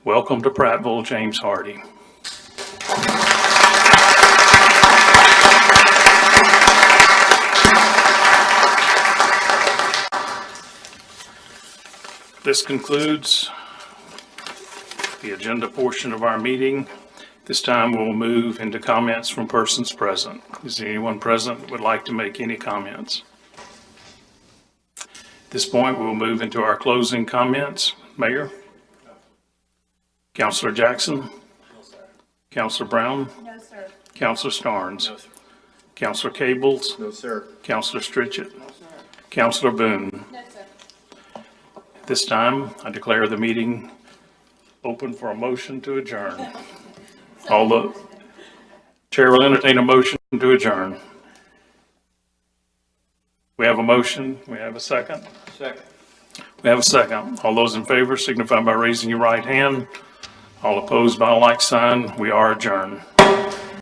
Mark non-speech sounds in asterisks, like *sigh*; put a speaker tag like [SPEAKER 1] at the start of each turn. [SPEAKER 1] Welcome to Prattville, James Hardy. This concludes the agenda portion of our meeting. This time, we'll move into comments from persons present. Is there anyone present that would like to make any comments? At this point, we'll move into our closing comments. Mayor? Counselor Jackson? Counselor Brown?
[SPEAKER 2] No, sir.
[SPEAKER 1] Counselor Starnes? Counselor Cables?
[SPEAKER 3] No, sir.
[SPEAKER 1] Counselor Stritchett? Counselor Boone?
[SPEAKER 2] No, sir.
[SPEAKER 1] At This time, I declare the meeting open for a motion to
[SPEAKER 2] *laughs*
[SPEAKER 1] adjourn. All the, Chair will entertain a motion to adjourn. We have a motion, we have a second?
[SPEAKER 3] Second.
[SPEAKER 1] We have a second. All those in favor signify by raising your right hand. All opposed by a like sign. We are adjourned.